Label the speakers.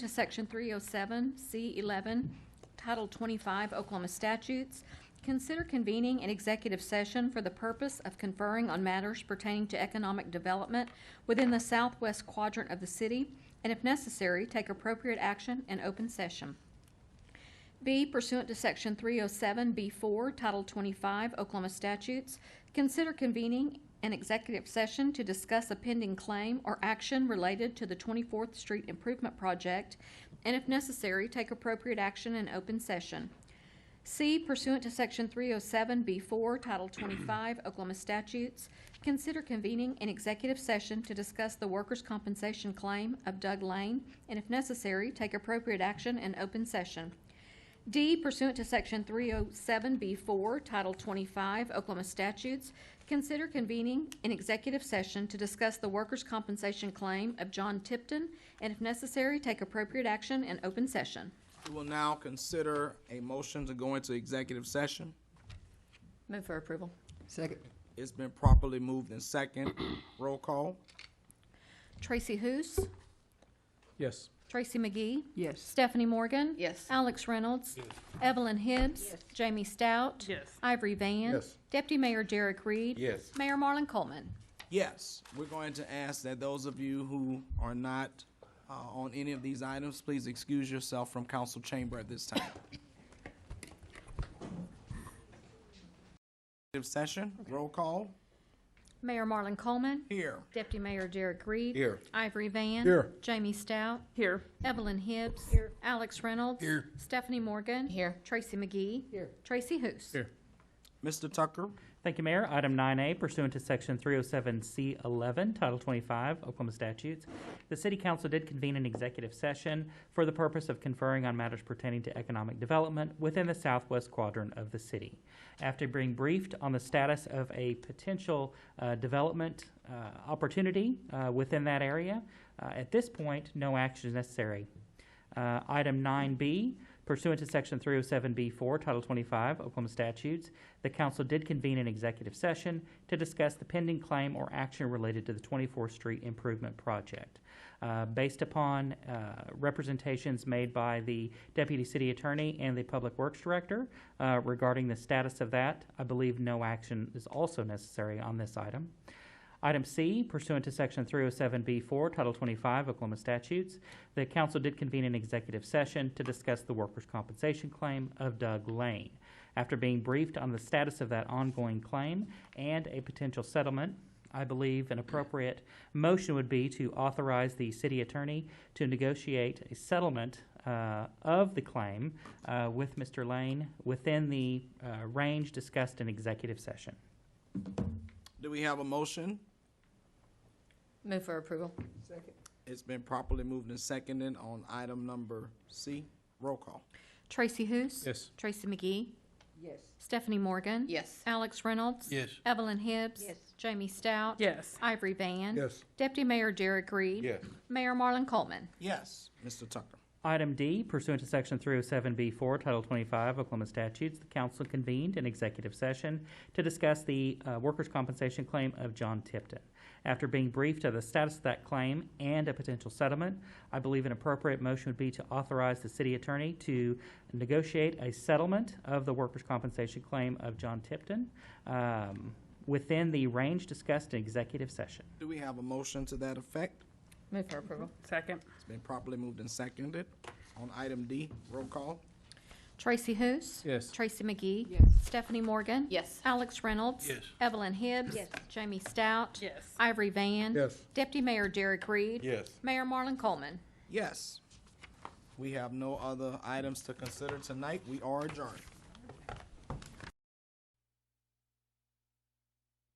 Speaker 1: to Section 307, C11, Title 25 Oklahoma statutes, consider convening an executive session for the purpose of conferring on matters pertaining to economic development within the southwest quadrant of the city, and if necessary, take appropriate action in open session. B pursuant to Section 307B4, Title 25 Oklahoma statutes, consider convening an executive session to discuss a pending claim or action related to the 24th Street Improvement Project, and if necessary, take appropriate action in open session. C pursuant to Section 307B4, Title 25 Oklahoma statutes, consider convening an executive session to discuss the workers' compensation claim of Doug Lane, and if necessary, take appropriate action in open session. D pursuant to Section 307B4, Title 25 Oklahoma statutes, consider convening an executive session to discuss the workers' compensation claim of John Tipton, and if necessary, take appropriate action in open session.
Speaker 2: We will now consider a motion to go into executive session.
Speaker 3: Move for approval.
Speaker 4: Second.
Speaker 2: It's been properly moved and second. Roll call.
Speaker 1: Tracy Hous,
Speaker 5: Yes.
Speaker 1: Tracy McGee,
Speaker 4: Yes.
Speaker 1: Stephanie Morgan.
Speaker 3: Yes.
Speaker 1: Alex Reynolds. Evelyn Hibbs. Jamie Stout. Ivory Van.
Speaker 5: Yes.
Speaker 1: Deputy Mayor Derek Reed.
Speaker 5: Yes.
Speaker 1: Mayor Marlon Coleman.
Speaker 2: Yes, we're going to ask that those of you who are not uh, on any of these items, please excuse yourself from council chamber at this time. Executive Session, roll call.
Speaker 1: Mayor Marlon Coleman.
Speaker 2: Here.
Speaker 1: Deputy Mayor Derek Reed.
Speaker 5: Here.
Speaker 1: Ivory Van.
Speaker 5: Here.
Speaker 1: Jamie Stout.
Speaker 3: Here.
Speaker 1: Evelyn Hibbs. Here. Alex Reynolds. Here. Stephanie Morgan.
Speaker 3: Here.
Speaker 1: Tracy McGee. Here. Tracy Hous.
Speaker 5: Here.
Speaker 2: Mr. Tucker,
Speaker 6: Thank you, Mayor. Item 9A, pursuant to Section 307C11, Title 25, Oklahoma statutes, the City Council did convene an executive session for the purpose of conferring on matters pertaining to economic development within the southwest quadrant of the city. After being briefed on the status of a potential uh, development uh, opportunity uh, within that area, uh, at this point, no action is necessary. Uh, Item 9B, pursuant to Section 307B4, Title 25 Oklahoma statutes, the council did convene an executive session to discuss the pending claim or action related to the 24th Street Improvement Project. Uh, Based upon uh, representations made by the Deputy City Attorney and the Public Works Director uh, regarding the status of that, I believe no action is also necessary on this item. Item C, pursuant to Section 307B4, Title 25 Oklahoma statutes, the council did convene an executive session to discuss the workers' compensation claim of Doug Lane. After being briefed on the status of that ongoing claim and a potential settlement, I believe an appropriate motion would be to authorize the city attorney to negotiate a settlement uh, of the claim uh, with Mr. Lane within the uh, range discussed in executive session.
Speaker 2: do we have a motion?
Speaker 3: Move for approval.
Speaker 4: Second.
Speaker 2: It's been properly moved and seconded on item number C. Roll call.
Speaker 1: Tracy Hous.
Speaker 5: Yes.
Speaker 1: Tracy McGee.
Speaker 4: Yes.
Speaker 1: Stephanie Morgan.
Speaker 3: Yes.
Speaker 1: Alex Reynolds. Yes. Evelyn Hibbs.
Speaker 4: Yes.
Speaker 1: Jamie Stout.
Speaker 3: Yes.
Speaker 1: Ivory Van.
Speaker 5: Yes.
Speaker 1: Deputy Mayor Derek Reed.
Speaker 5: Yes.
Speaker 1: Mayor Marlon Coleman.
Speaker 2: Yes, Mr. Tucker.
Speaker 6: Item D, pursuant to Section 307B4, Title 25 Oklahoma statutes, the council convened an executive session to discuss the uh, workers' compensation claim of John Tipton. After being briefed of the status of that claim and a potential settlement, I believe an appropriate motion would be to authorize the city attorney to negotiate a settlement of the workers' compensation claim of John Tipton um, within the range discussed in executive session.
Speaker 2: Do we have a motion to that effect?
Speaker 3: Move for approval.
Speaker 7: Second,
Speaker 2: It's been properly moved and seconded. On item D, roll call.
Speaker 1: Tracy Hous.
Speaker 5: Yes.
Speaker 1: Tracy McGee.
Speaker 4: Yes.
Speaker 1: Stephanie Morgan.
Speaker 3: Yes.
Speaker 1: Alex Reynolds. Yes. Evelyn Hibbs.
Speaker 4: Yes.
Speaker 1: Jamie Stout.
Speaker 7: yes.
Speaker 1: Ivory Van.
Speaker 5: Yes.
Speaker 1: Deputy Mayor Derek Reed.
Speaker 5: Yes.
Speaker 1: Mayor Marlon Coleman.
Speaker 2: Yes. We have no other items to consider tonight. We are adjourned.